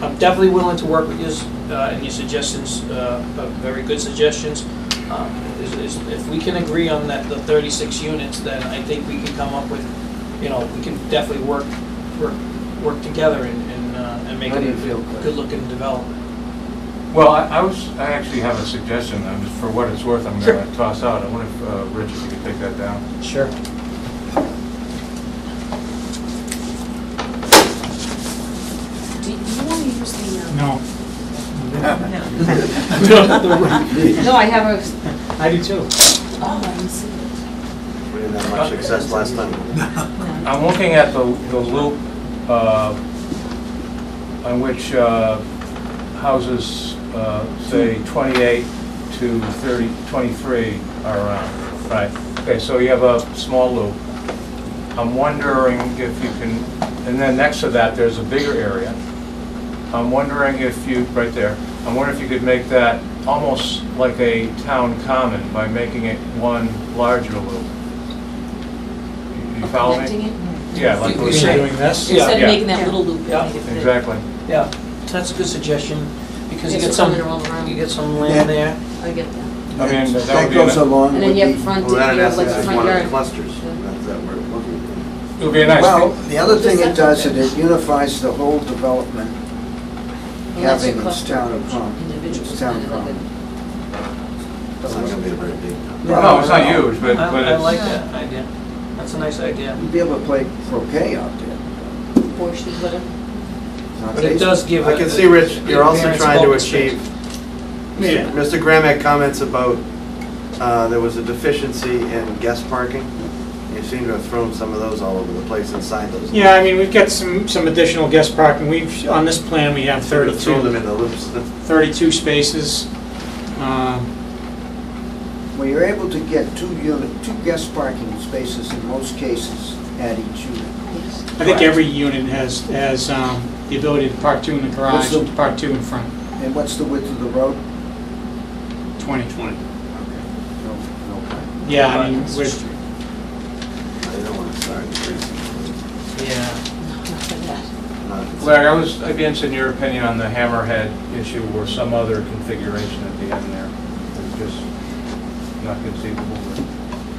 I'm definitely willing to work with yours, uh, and your suggestions, uh, are very good suggestions. Um, is, is, if we can agree on that, the thirty-six units, then I think we can come up with, you know, we can definitely work, work, work together and, and, uh, and make How it do you a feel, Chris? good-looking development. Well, I I was, I actually have a suggestion, I'm just, for what it's worth, I'm Sure. gonna toss out. I wonder if, uh, Rich, if you could take that down. Sure. Do you want to use the? um, No. No, I have a, I do too. oh, I didn't see it. We didn't have much success last time. No. I'm looking at the, the loop, uh, on which, uh, houses, uh, say twenty-eight to 30 23 are around, right? Okay, so you have a small loop. I'm wondering if you can, and then next to that, there's a bigger area. I'm wondering if you, right there, I'm wondering if you could make that almost like a town common by making it one larger loop. You- You follow me? Connecting it? Yeah, like You- we you said. say- Doing this? Yeah. Instead Yeah. of making that little loop. Yeah. make it big. Exactly. Yeah, so that's a good suggestion, because you It's get some, coming all around. you get some land there. I get that. I mean, that would That be a- goes along And with then you have the- front, well, you that in have like essence a is front one of the yard. clusters. Yeah. That's that we're looking for. It would be a nice. Well, the other Does thing that it does, fit? is it unifies the whole development, Well, that's a having its cluster town of of common. Individuals. It's town kind of of like common. It's not gonna be a very big town. No, it's not huge, I, but, but I like it's, that idea, that's a nice idea. You'd be able to play croquet out there. a Porsche, whatever. It's not But it big. does give. I a- can see, Rich, you're also appearance of trying to open space. achieve, Yeah. Mr. Graham had comments about, uh, there was a deficiency in guest parking. You seem to have thrown some of those all over the place inside those. Yeah, I mean, we've got some, some additional guest parking. We've, on this plan, we have Sort of Thrown them 32, in the loops. 32 spaces. Um, Well, you're able to get two unit, two guest parking spaces in most cases at each unit. I think every unit has, has um, the ability to park two in the garage, What's and the- park two in front, And what's the width of the road? 20. 20. No, no. Yeah, I mean, we're, I don't want to start increasing. Yeah, No, not for that. Not if it's- Larry, I was, I'd be interested in your opinion on the hammerhead issue or some other configuration at the end there. It's just not conceivable.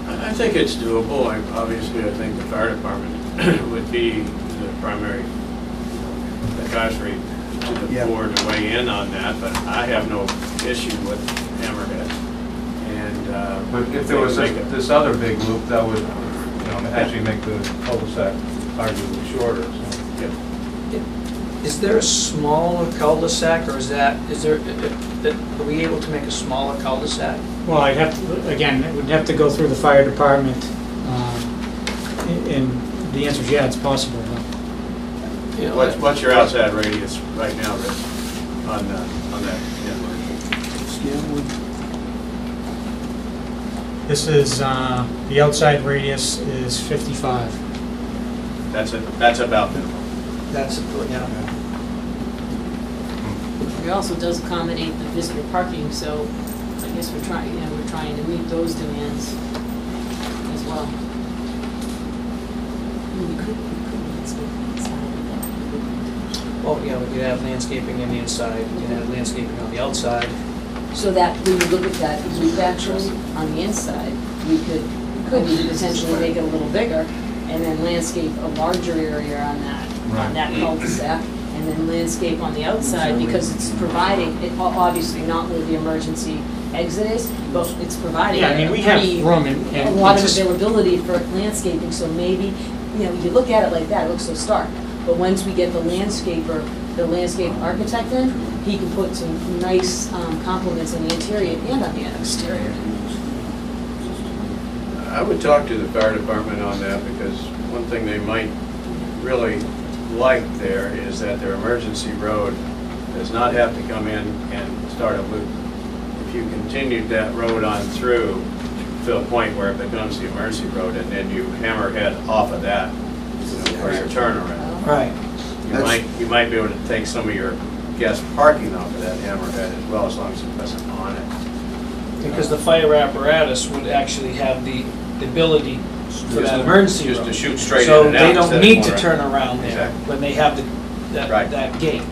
but- I I think it's doable. I- Obviously, I think the fire department would be the primary advisory to Yeah. the board to weigh in on that, but I have no issue with hammerhead. And. uh, But if there was they this, can make it- this other big loop, that would, you know, actually make the cul-de-sac arguably shorter, so. yeah. is there a smaller cul-de-sac, or is that, is there, are we able to make a smaller cul-de-sac? well, I'd have to, again, it would have to go through the fire department. uh, And the answer is yeah, it's possible. but- You know, What's, what's your outside radius right now, Rich, on, uh, on that inlet? This is, uh, the outside radius is 55. That's, a- that's about minimum. That's, uh, yeah. It also does accommodate the visitor parking, so I guess we're trying, you know, we're trying to meet those demands as well. We could, we could landscape inside of Well, yeah, we could have landscaping in the inside, we could have landscaping on the outside. that. So that, when you look at that loop actually on the inside, we could, could we potentially make it a little bigger and then landscape a larger area on that, on Right. that cul-de-sac, and then landscape on the outside because it's providing, it, o- obviously not where the emergency exit is, but it's providing. Yeah, I mean, we have pretty- room and. a and lot of it's- availability for landscaping, so maybe, you know, you look at it like that, it looks so stark. But once we get the landscaper, the landscape architect in, he can put some nice um, complements in the interior and on the exterior. I would talk to the fire department on that, because one thing they might really like there is that their emergency road does not have to come in and start a loop. If you continued that road on through to the point where it becomes the emergency road, and then you hammerhead off of that you know, for your turnaround, Right. you That's- might, you might be able to take some of your guest parking off of that hammerhead as well, as long as it doesn't on it. Because the fire apparatus would actually have the the ability for that emergency Just room. to shoot straight in So and out they instead don't of need going to around. turn around there Exactly. when they have the, that, Right. that gate.